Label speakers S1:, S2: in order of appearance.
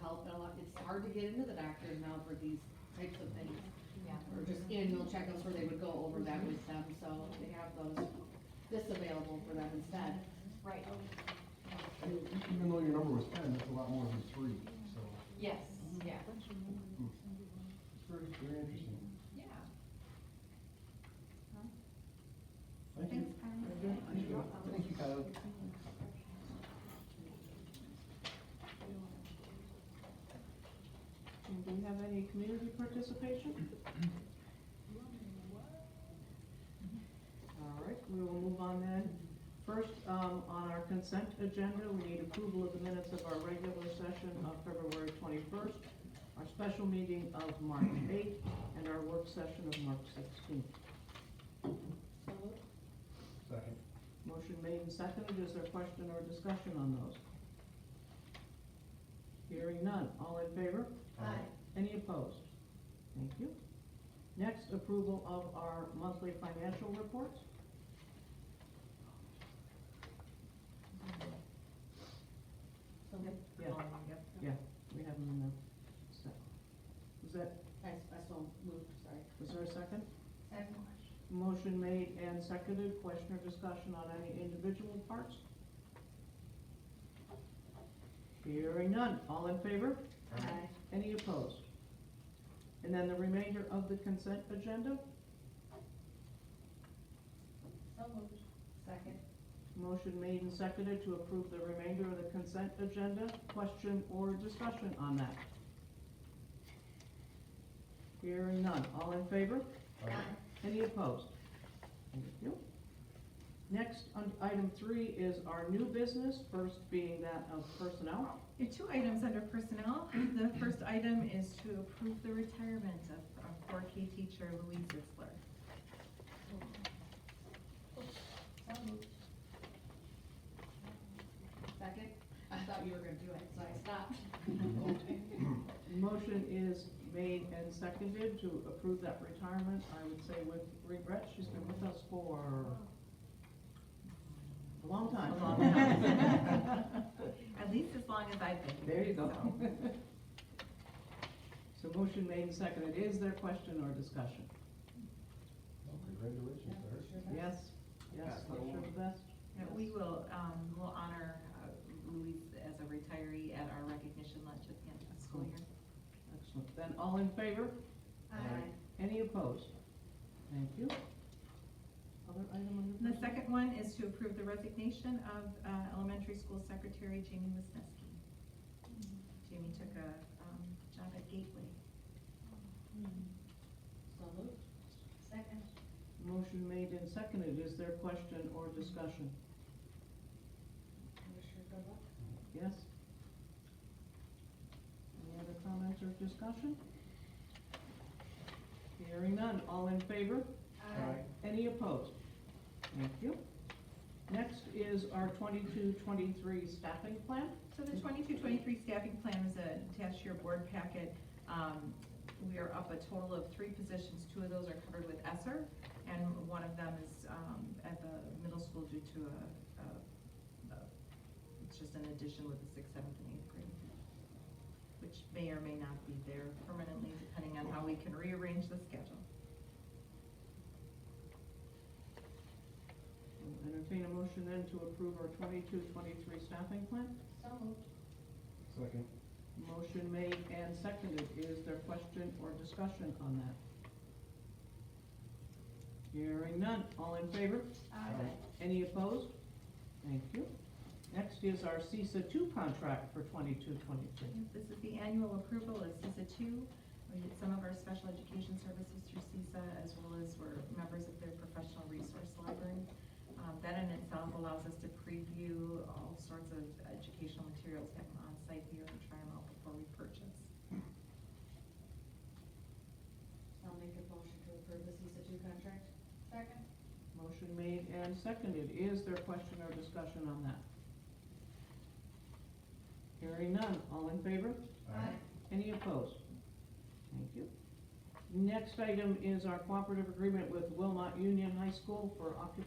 S1: health, and a lot, it's hard to get into the doctor now for these types of things.
S2: Yeah.
S1: Or just annual checkups where they would go over that with them, so they have those, this available for them instead.
S2: Right,
S1: Oh.
S3: And Even though your number was ten, that's a lot more than three, so
S2: yes,
S1: Mm-hmm.
S2: yeah,
S3: it's very, very interesting.
S2: yeah.
S3: Thank you. Thank you. Thank you, Kyle.
S4: And do we have any community participation? All right, we will move on then. First, um, on our consent agenda, we need approval of the minutes of our regular session of February twenty-first, our special meeting of March eighth, and our work session of March sixteenth.
S3: Second.
S4: Motion made and seconded, is there question or discussion on those? Hearing none, all in favor? Any opposed? Thank you. Next, approval of our monthly financial reports. Yeah, yeah, we have them in there. So, Is that,
S1: I, I so moved, sorry.
S4: is there a second?
S1: Second.
S4: Motion made and seconded, question or discussion on any individual parts? Hearing none, all in favor?
S1: Aye.
S4: Any opposed? And then the remainder of the consent agenda,
S1: So moved. Second.
S4: Motion made and seconded to approve the remainder of the consent agenda. Question or discussion on that? Hearing none. All in favor? Any opposed? Thank you. Next, on item three is our new business, first being that of personnel.
S5: Your two items under personnel. The first item is to approve the retirement of of 4K teacher Louise Zitzler.
S1: So moved. Second, I thought you were gonna do it, so I stopped.
S4: Motion is made and seconded to approve that retirement, I would say with regret. She's been with us for a long time.
S5: A long time. At least as long as I've been.
S4: There you go.
S5: so.
S4: So motion made and seconded. Is there question or discussion?
S3: Well, Congratulations, sir.
S4: Yes, yes,
S3: Best of
S4: wish her
S3: luck.
S4: the best.
S5: And We will, um, we'll honor uh, Louise as a retiree at our recognition lunch at the end of the school year.
S4: Excellent. Then all in favor?
S1: Aye.
S4: Any opposed? Thank you. Other item on
S5: And
S4: your.
S5: the second one is to approve the resignation of uh, elementary school secretary Jamie Wisniewski. Jamie took a um, job at Gateway.
S1: So moved. Second.
S4: Motion made and seconded. Is there question or discussion?
S1: Wish her good luck.
S4: Yes? Any other comments or discussion? Hearing none. All in favor?
S3: Aye.
S4: Any opposed? Thank you. Next is our 22-23 staffing plan.
S5: So the 22-23 staffing plan is attached to your board packet. Um, we are up a total of three positions, two of those are covered with Esser, and one of them is, um, at the middle school due to a, a, a- it's just an addition with the sixth, seventh, and eighth grade, which may or may not be there permanently, depending on how we can rearrange the schedule.
S4: We'll Entertain a motion then to approve our 22-23 staffing plan.
S1: So moved.
S3: Second.
S4: Motion made and seconded. Is there question or discussion on that? Hearing none. All in favor?
S3: Aye.
S4: Any opposed? Thank you. Next is our CISA two contract for 22-23.
S5: This is the annual approval of CISA two. We get some of our special education services through CISA, as well as we're members of their professional resource library. Um, That in itself allows us to preview all sorts of educational materials that come on-site here and try them out before we purchase.
S1: I'll make a motion to approve the CISA two contract. Second.
S4: Motion made and seconded. Is there question or discussion on that? Hearing none. All in favor? Any opposed? Thank you. Next item is our cooperative agreement with Wilmot Union High School for occupational